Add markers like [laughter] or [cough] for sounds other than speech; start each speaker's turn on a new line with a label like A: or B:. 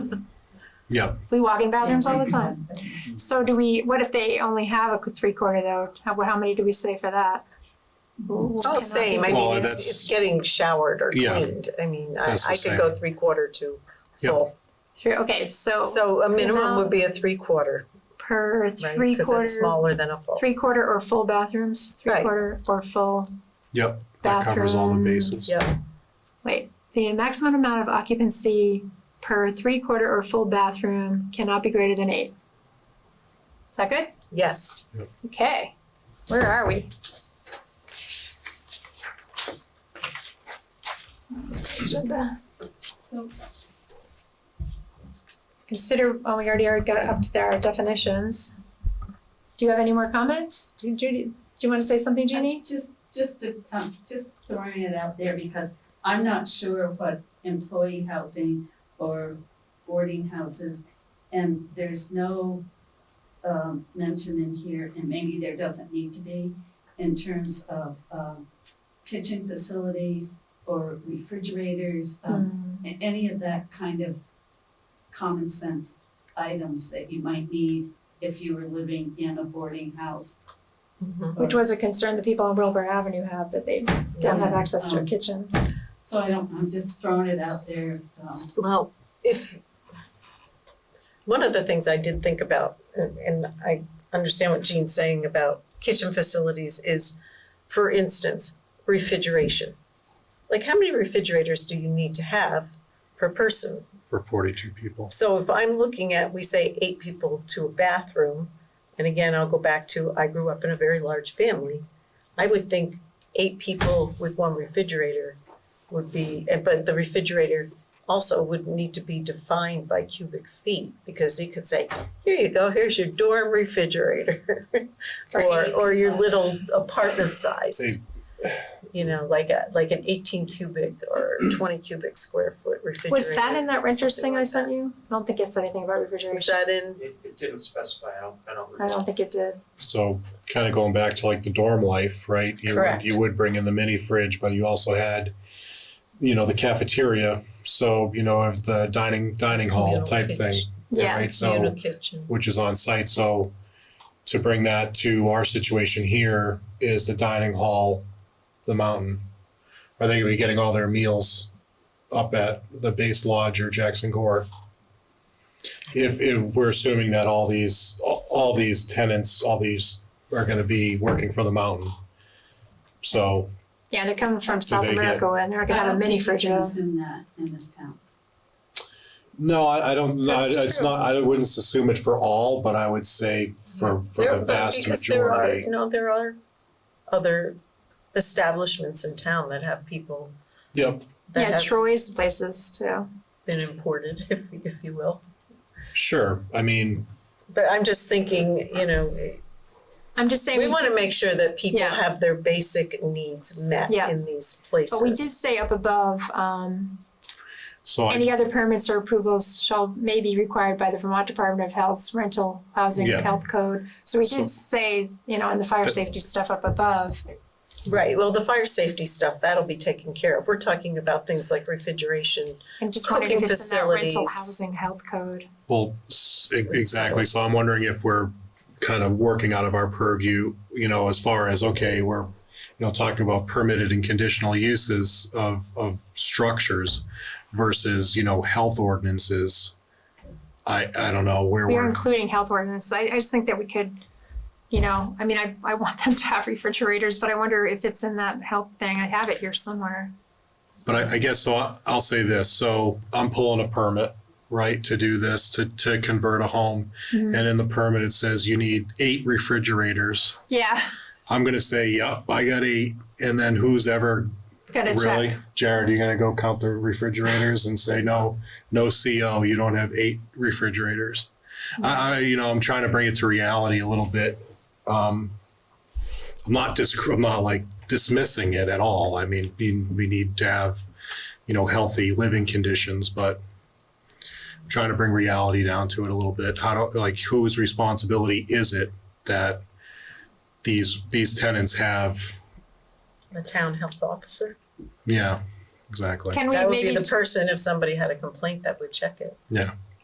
A: Yeah.
B: We walk in bathrooms all the time. So do we, what if they only have a three quarter though? How, how many do we say for that?
C: It's all the same, I
A: Well,
C: mean,
A: that's-
C: it's, it's getting showered or
A: Yeah.
C: cleaned, I mean, I,
A: That's the
C: I could go
A: same.
C: three quarter to
A: Yep.
C: full.
B: Three, okay, so
C: So a minimum
B: amount-
C: would be a three quarter,
B: per
C: right,
B: three
C: because it's
B: quarter,
C: smaller than a full.
B: three quarter or full bathrooms, three
C: Right.
B: quarter or full,
A: Yep, that covers all the
B: Bathrooms.
A: bases.
C: Yeah,
B: wait. The maximum amount of occupancy per three quarter or full bathroom cannot be greater than eight. Is that good?
C: yes,
B: Okay, where are we? Consider, oh, we already already got it up to there, our definitions. Do you have any more comments? Do Judy, do you wanna say something, Jeannie?
D: Just, just to, um, just throwing it out there because I'm not sure what employee housing or boarding houses, and there's no, um, mention in here, and maybe there doesn't need to be, in terms of, um, kitchen facilities or refrigerators, um, a- any of that kind of common sense items that you might need if you were living in a boarding house.
C: Mhm.
B: Which was a concern the people on Wilbur Avenue have, that they don't have access to a kitchen.
D: So I don't, I'm just throwing it out there, um,
C: well, if, one of the things I did think about, and, and I understand what Jean's saying about kitchen facilities is, for instance, refrigeration. Like, how many refrigerators do you need to have per person?
A: For forty-two people.
C: So if I'm looking at, we say eight people to a bathroom, and again, I'll go back to, I grew up in a very large family. I would think eight people with one refrigerator would be, eh, but the refrigerator also would need to be defined by cubic feet, because you could say, here you go, here's your dorm refrigerator. [laughs] Or, or your little apartment
A: They-
C: size. You know, like a, like an eighteen cubic or twenty cubic square foot refrigerator.
B: Was that in that renters
C: something
B: thing I
C: like
B: sent you? I don't think it said anything about
C: Is
B: refrigeration.
C: that in?
E: It, it didn't specify, I don't, I don't
B: I don't
E: recall.
B: think it did.
A: So kind of going back to like the dorm life, right? You would,
C: Correct.
A: you would bring in the mini fridge, but you also had, you know, the cafeteria. So, you know, it was the dining, dining hall
C: Communal
A: type thing,
C: kitchen.
B: Yeah,
A: right? So.
C: Communal kitchen.
A: which is on site. So to bring that to our situation here is the dining hall, the mountain. Are they gonna be getting all their meals up at the base lodge or Jackson Gore? If if we're assuming that all these, all all these tenants, all these are gonna be working for the mountain. So
B: yeah, they're coming from
A: Do
B: South
A: they get-
B: America and they're gonna have a mini fridge.
D: I
B: of-
D: don't think you can assume that uh, in this town.
A: no, I I don't, no, I-
C: That's
A: it's
C: true.
A: not, I wouldn't assume it for all, but I would say for for
C: There-
A: the
C: but
A: vast majority.
C: because there are, you know, there are other establishments in town that have people
A: Yep.
C: that
B: Yeah,
C: have
B: Troy's places too.
C: been imported, [laughs] if if you will.
A: Sure, I mean,
C: But I'm just thinking, you know,
B: I'm just saying, we
C: we wanna
B: did,
C: make sure that people
B: Yeah.
C: have their basic needs met
B: Yeah.
C: in these places.
B: but we did say up above, um,
A: so I,
B: any other permits or approvals shall may be required by the Vermont Department of Health's rental housing
A: Yeah.
B: health code. So we
A: So-
B: did say, you know, in the fire
A: Th-
B: safety stuff up above,
C: Right, well, the fire safety stuff, that'll be taken care of. We're talking about things like refrigeration.
B: I'm just wondering if
C: Cooking
B: it's in that rental
C: facilities.
B: housing health code.
A: well, s- e- exactly, so I'm wondering if we're kind of working out of our purview, you know, as far as, okay, we're, you know, talking about permitted and conditional uses of, of structures versus, you know, health ordinances. I, I don't know where
B: We are
A: we're,
B: including health ordinance. I, I just think that we could, you know, I mean, I, I want them to have [laughs] refrigerators, but I wonder if it's in that health thing. I have it here somewhere.
A: but I, I guess, so I- I'll say this, so I'm pulling a permit, right, to do this, to, to convert a home.
B: Mhm.
A: And in the permit, it says you need eight refrigerators.
B: Yeah, [laughs]
A: I'm gonna say, yep, I got eight, and then who's ever
B: gotta
A: Really?
B: check.
A: Jared, you gonna go count the refrigerators and say, no, no CO, you don't have eight refrigerators? I, I, you know, I'm trying to bring it to reality a little bit. Um, I'm not dis, I'm not like dismissing it at all. I mean, we, we need to have, you know, healthy living conditions, but I'm trying to bring reality down to it a little bit. How do, like, whose responsibility is it that these, these tenants have?
C: A town health officer,
A: Yeah, exactly.
B: Can we
C: that would be
B: maybe
C: the person, if somebody had a complaint, that would check it.
A: Yeah.